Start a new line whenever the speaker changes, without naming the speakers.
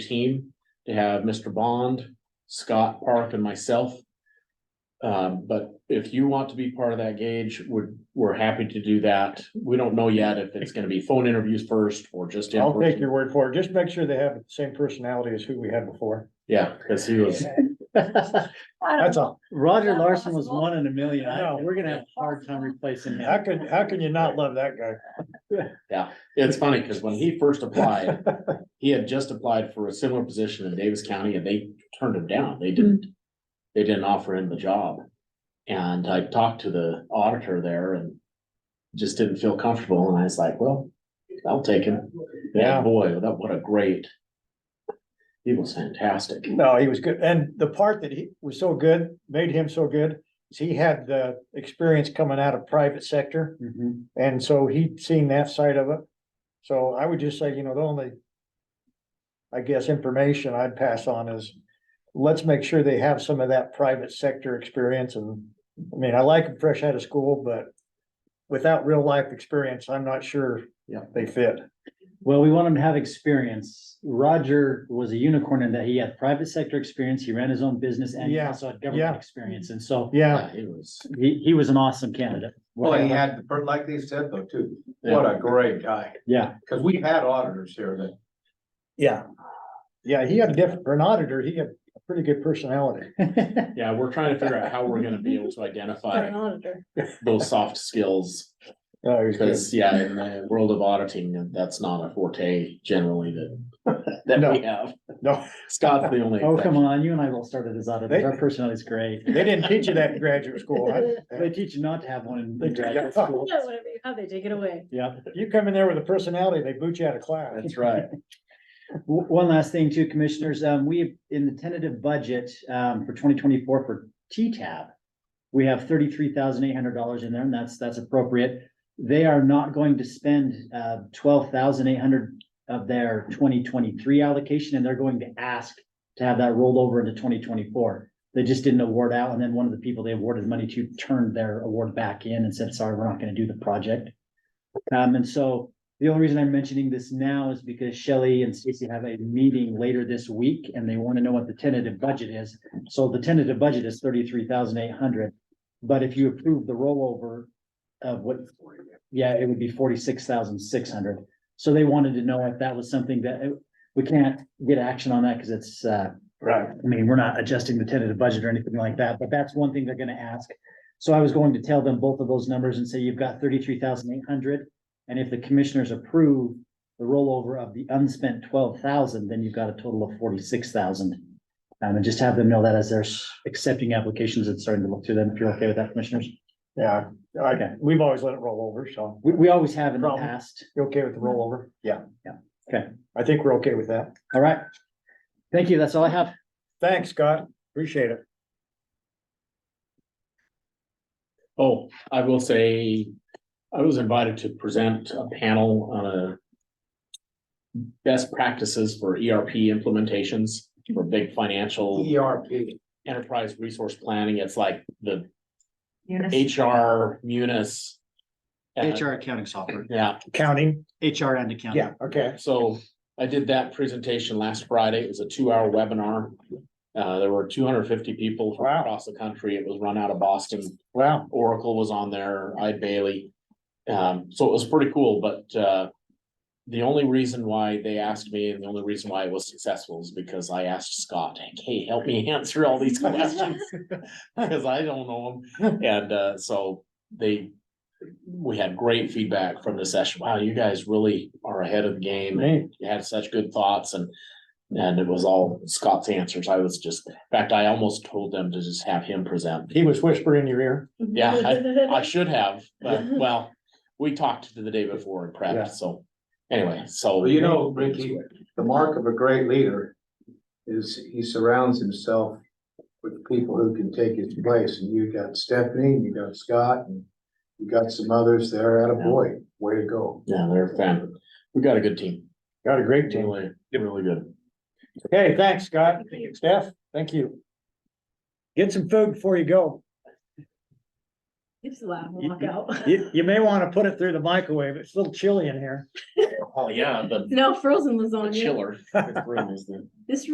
team to have Mr. Bond, Scott Park and myself. Um, but if you want to be part of that gauge, we're, we're happy to do that. We don't know yet if it's gonna be phone interviews first or just. in
I'll take
person.
your word for it. Just make sure they have the same personality as who we had before.
Yeah, cause he was,
That's all.
Roger
Is that
Larson was
possible?
one in a million. I,
No.
we're gonna have a hard time replacing
How
him.
could, how can you not love that guy?
it's funny, cause when he first applied, he had just applied for a similar position in Davis County and they turned him down. They didn't. They didn't offer him the job. And I talked to the auditor there and just didn't feel comfortable. And I was like, well, I'll take him. Yeah,
Yeah.
boy, that, what a great. He was fantastic.
No, he was good. And the part that he was so good, made him so good, is he had the experience coming out of private sector.
Mhm.
And so he seen that side of it. So I would just say, you know, the only. I guess information I'd pass on is, let's make sure they have some of that private sector experience and. I mean, I like them fresh out of school, but without real life experience, I'm not sure
Yeah.
they fit.
Well, we want him to have experience. Roger was a unicorn in that he had private sector experience. He ran his own business and he
Yeah,
also had
yeah.
government experience. And so
Yeah,
Yeah, he was.
he, he was an awesome candidate.
Well, he had, the per- like they said though, too, what a great guy,
Yeah,
because we've had auditors here that,
yeah. Yeah, he had a different, for an auditor, he had a pretty good personality.
Yeah, we're trying to figure out how we're gonna be able to identify
an auditor.
those soft skills.
Oh, he was good.
Because, yeah, in the world of auditing, that's not a forte generally that, that we have.
No.
Scott's the only.
oh, come
exception.
on, you and I both started as auditors. Our personality's great.
They didn't teach you that in graduate school.
They
I-
teach you not to have one in-
They
in
do, yeah.
graduate school.
Yeah, whatever you have, they take it away.
Yeah.
You come in there with a personality, they boot you out of class.
That's right.
W- One last thing too, commissioners, um, we, in the tentative budget, um, for twenty twenty-four for T-Tab. We have thirty-three thousand eight hundred dollars in there and that's, that's appropriate. They are not going to spend, uh, twelve thousand eight hundred of their twenty twenty-three allocation and they're going to ask to have that rolled over into twenty twenty-four. They just didn't award out and then one of the people they awarded money to turned their award back in and said, sorry, we're not gonna do the project. Um, and so the only reason I'm mentioning this now is because Shelley and Stacy have a meeting later this week and they want to know what the tentative budget is. So the tentative budget is thirty-three thousand eight hundred. But if you approve the rollover of what, yeah, it would be forty-six thousand six hundred. So they wanted to know if that was something that, uh, we can't get action on that because it's, uh,
Right.
I mean, we're not adjusting the tentative budget or anything like that, but that's one thing they're gonna ask. So I was going to tell them both of those numbers and say you've got thirty-three thousand eight hundred. And if the commissioners approve the rollover of the unspent twelve thousand, then you've got a total of forty-six thousand. Um, and just have them know that as they're s- accepting applications and starting to look through them, if you're okay with that, commissioners.
Yeah,
Okay.
I, we've always let it roll over, so
We, we always have in the
Problem.
past.
you okay with the rollover? Yeah.
Yeah. Okay.
I think we're okay with that.
All right. Thank you. That's all I have.
Thanks, Scott. Appreciate it.
Oh, I will say, I was invited to present a panel on a. Best practices for ERP implementations for big
E
financial
ERP.
enterprise resource planning. It's like the
Eunice.
HR munis. uh,
HR accounting software,
Yeah,
Counting?
HR and accounting.
Yeah, okay.
so I did that presentation last Friday. It was a two-hour webinar. Uh, there were two hundred and fifty people from
Wow.
across the country. It was run out of Boston.
Wow.
Oracle was on there, I Bailey. Um, so it was pretty cool, but, uh. The only reason why they asked me and the only reason why it was successful is because I asked Scott, hey, help me answer all these questions. Cause I don't know them. And, uh, so they, we had great feedback from the session. Wow, you guys really are ahead of the game. and
Neat.
you had such good thoughts and. And it was all Scott's answers. I was just, in fact, I almost told them to just have him present
He was whispering in your ear.
yeah, I should have, but well, we talked the day before and
Yeah.
prepped, so anyway, so.
Well, you know, Ricky, the mark of a great leader is he surrounds himself with people who can take his place. And you got Stephanie, and you got Scott, and you got some others there. At a boy, way to go.
Yeah, they're a fan. We got a good team.
Got a great team.
Really, really good.
Okay, thanks, Scott. Steph, thank you. Get some food before you go.
It's loud, walk out.
You, you may want to put it through the microwave. It's a little chilly in here.
Oh, yeah, the
No, frozen was
the
on you.
chiller. Room is the.
This